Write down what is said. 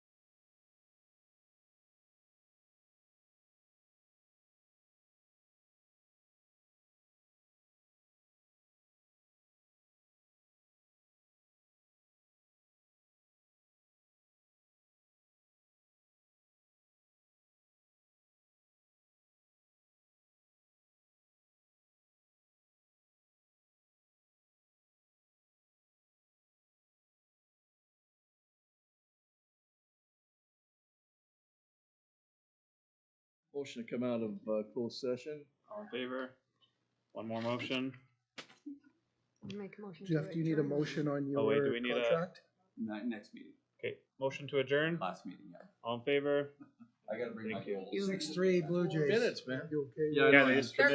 Motion to come out of, uh, closed session. All in favor? One more motion? Make a motion. to Jeff, do you need a adjourn. motion on Oh, wait, do your we need a- contract? Ni- next meeting, Okay, motion to adjourn? last meeting, yeah. All in favor? I gotta bring my Thank you. goals. Six, three, Blue Jays. Minutes, man. You okay? Yeah, I with- know, they I just just- They're